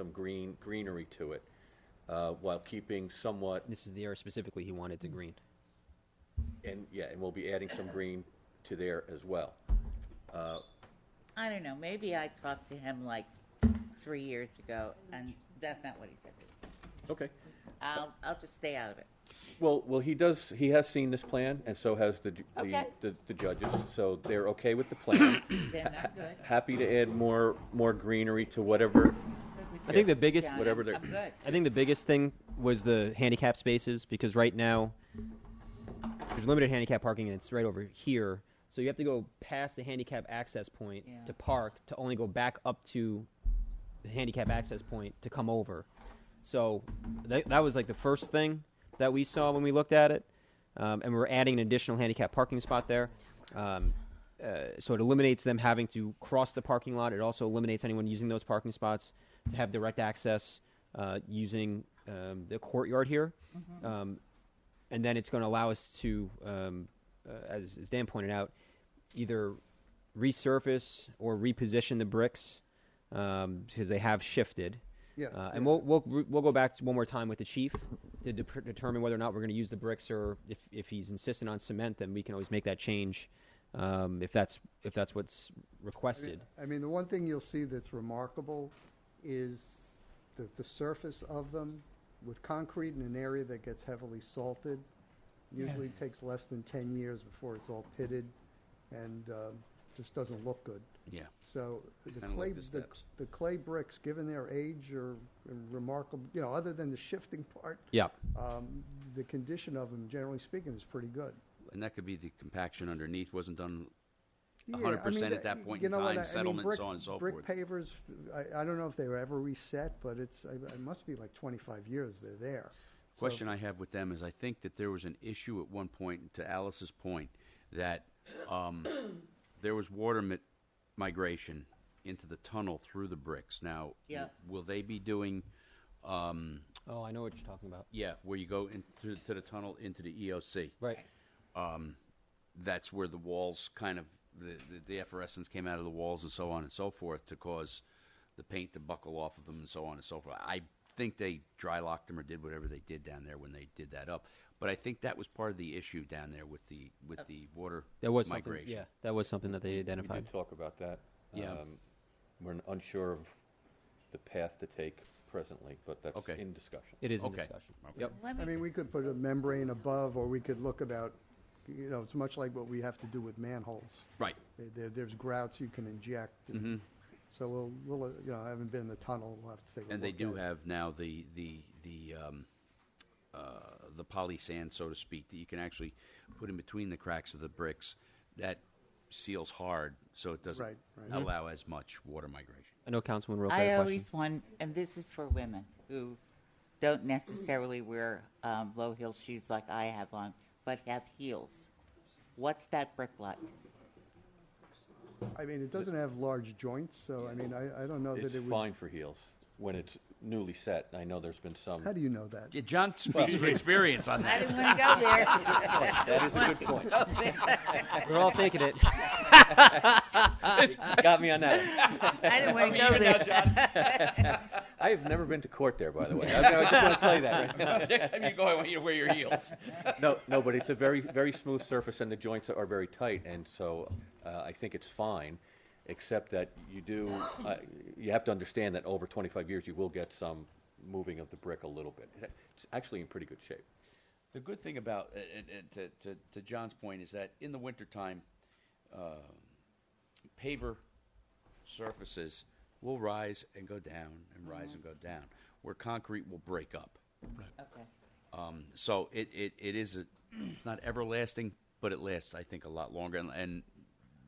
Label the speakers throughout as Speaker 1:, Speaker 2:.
Speaker 1: some green, greenery to it, uh, while keeping somewhat,
Speaker 2: This is the area specifically he wanted to
Speaker 3: Mm.
Speaker 2: green.
Speaker 1: and, yeah, and we'll be adding some green to there as well.
Speaker 3: I don't know, maybe I talked to him like three years ago, and that's not what he said.
Speaker 1: Okay.
Speaker 3: I'll, I'll just stay out of it.
Speaker 1: Well, well, he does, he has seen this plan, and so has the, ju- the-
Speaker 3: Okay.
Speaker 1: the, the judges, so they're okay with the plan.
Speaker 3: Then I'm good.
Speaker 1: Happy to add more, more greenery to whatever,
Speaker 2: I think the biggest,
Speaker 3: Yeah,
Speaker 1: whatever they're-
Speaker 3: I'm good.
Speaker 2: I think the biggest thing was the handicap spaces because right now there's limited handicap parking and it's right over here. So you have to go past the handicap access point
Speaker 3: Yeah.
Speaker 2: to park to only go back up to the handicap access point to come over. So that, that was like the first thing that we saw when we looked at it. Um, and we're adding an additional handicap parking spot there. Um, uh, so it eliminates them having to cross the parking lot. It also eliminates anyone using those parking spots to have direct access uh, using um, the courtyard here.
Speaker 4: Mm-hmm.
Speaker 2: Um, and then it's going to allow us to, um, uh, as, as Dan pointed out, either resurface or reposition the bricks um, because they have shifted.
Speaker 4: Yes,
Speaker 2: Uh,
Speaker 4: yeah.
Speaker 2: and we'll, we'll we'll go back one more time with the chief to de- determine whether or not we're going to use the bricks or if, if he's insistent on cement, then we can always make that change um, if that's if that's what's requested.
Speaker 4: I mean, the one thing you'll see that's remarkable is the, the surface of them with concrete in an area that gets heavily salted. Usually takes less than ten years before it's all pitted and, um, just doesn't look good.
Speaker 1: Yeah.
Speaker 4: So the
Speaker 1: Kinda like
Speaker 4: clay,
Speaker 1: the
Speaker 4: the,
Speaker 1: steps.
Speaker 4: the clay bricks, given their age are remarkable, you know, other than the shifting part,
Speaker 2: Yeah.
Speaker 4: um, the condition of them, generally speaking, is pretty good.
Speaker 5: And that could be the compaction underneath wasn't done
Speaker 4: Yeah, I
Speaker 5: 100%
Speaker 4: mean,
Speaker 5: at that point
Speaker 4: you
Speaker 5: in
Speaker 4: know what, I- I
Speaker 5: time,
Speaker 4: mean,
Speaker 5: settlements,
Speaker 4: brick-
Speaker 5: so on and so
Speaker 4: brick
Speaker 5: forth.
Speaker 4: pavers, I, I don't know if they were ever reset, but it's, I- it must be like 25 years they're there. So-
Speaker 5: Question I have with them is I think that there was an issue at one point, to Alice's point, that um, there was water mi- migration into the tunnel through the bricks. Now,
Speaker 3: Yeah.
Speaker 5: will they be doing, um,
Speaker 2: Oh, I know what you're talking about.
Speaker 5: yeah, where you go into to the tunnel into the E EOC?
Speaker 2: Right.
Speaker 5: that's where the walls kind of the, the, the efferescence came out of the walls and so on and so forth to cause the paint to buckle off of them and so on and so forth. I think they dry locked them or did whatever they did down there when they did that up. But I think that was part of the issue down there with the with the water
Speaker 2: That Uh, was
Speaker 5: migration.
Speaker 2: something. Yeah, that was something that they
Speaker 1: We did
Speaker 2: identified.
Speaker 1: talk about that.
Speaker 5: Yeah.
Speaker 1: Um, We're unsure of the path to take presently, but that's
Speaker 5: Okay.
Speaker 1: in discussion.
Speaker 2: It is in
Speaker 5: Okay.
Speaker 2: discussion.
Speaker 5: Okay.
Speaker 2: Yep.
Speaker 3: Let
Speaker 4: I
Speaker 3: me,
Speaker 4: mean, we could put a membrane above, or we could look about, you know, it's much like what we have to do with manholes.
Speaker 5: Right. Mm-hmm.
Speaker 4: There- There, there's grouts you can inject. and- So we'll, we'll, uh, you know, I haven't been in the tunnel, we'll have to take a look.
Speaker 5: And they do
Speaker 4: at it.
Speaker 5: have now the the the um, uh, the poly sand, so to speak, that you can actually put in between the cracks of the bricks that seals hard, so it doesn't
Speaker 4: Right, right.
Speaker 5: allow as much water migration.
Speaker 2: I know Councilman Roca had
Speaker 3: I
Speaker 2: a question.
Speaker 3: always want, and this is for women who don't necessarily wear um, low heel shoes like I have on, but have heels. What's that brick like?
Speaker 4: I mean, it doesn't have large joints, so I mean, I, I don't know that
Speaker 1: It's
Speaker 4: it would.
Speaker 1: fine for heels when it's newly set. I know there's been some.
Speaker 4: How do you know that?
Speaker 5: Yeah, John speaks from experience on
Speaker 3: I
Speaker 5: that.
Speaker 3: didn't want to go there.
Speaker 1: That is a good point.
Speaker 2: We're all thinking it.
Speaker 1: Got me on that.
Speaker 3: I didn't want to go there.
Speaker 1: I have never been to court there, by the way. I I just want to tell you that.
Speaker 5: Next time you go, I want you to wear your heels.
Speaker 1: No, no, but it's a very, very smooth surface, and the joints are very tight, and so uh, I think it's fine, except that you do, uh, you have to understand that over 25 years, you will get some moving of the brick a little bit. It's actually in pretty good shape.
Speaker 5: The good thing about, and, and- and to, to, to John's point, is that in the wintertime, uh, paver surfaces will rise and go down and rise and go down, where concrete will break up.
Speaker 3: Okay.
Speaker 5: Um, so it, it, it is, a, it's not everlasting, but it lasts, I think, a lot longer. And, and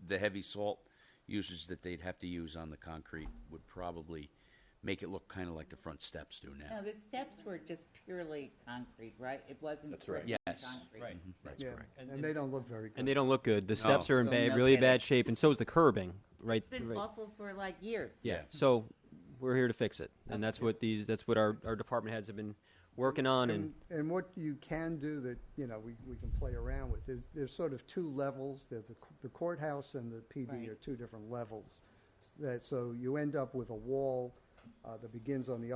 Speaker 5: the heavy salt usage that they'd have to use on the concrete would probably make it look kind of like the front steps do now.
Speaker 3: Now, the steps were just purely concrete, right? It wasn't.
Speaker 1: That's right.
Speaker 3: brick and
Speaker 5: Yes.
Speaker 3: concrete.
Speaker 5: Mm-hmm. That's
Speaker 4: Yeah,
Speaker 5: correct.
Speaker 4: and they don't look very good.
Speaker 2: and they don't look good. The steps are in
Speaker 3: No,
Speaker 2: bad,
Speaker 3: no
Speaker 2: really
Speaker 3: kidding.
Speaker 2: bad shape, and so is the curbing. Right.
Speaker 3: It's been
Speaker 2: right.
Speaker 3: awful for like years.
Speaker 2: Yeah.
Speaker 5: Yeah.
Speaker 2: So we're here to fix it, and that's what these. That's what our, our department heads have been working on, and
Speaker 4: And what you can do that, you know, we, we can play around with is there's sort of two levels. There's the c- the courthouse and the PD
Speaker 3: Right.
Speaker 4: are two different levels. That, so you end up with a wall uh, that begins on the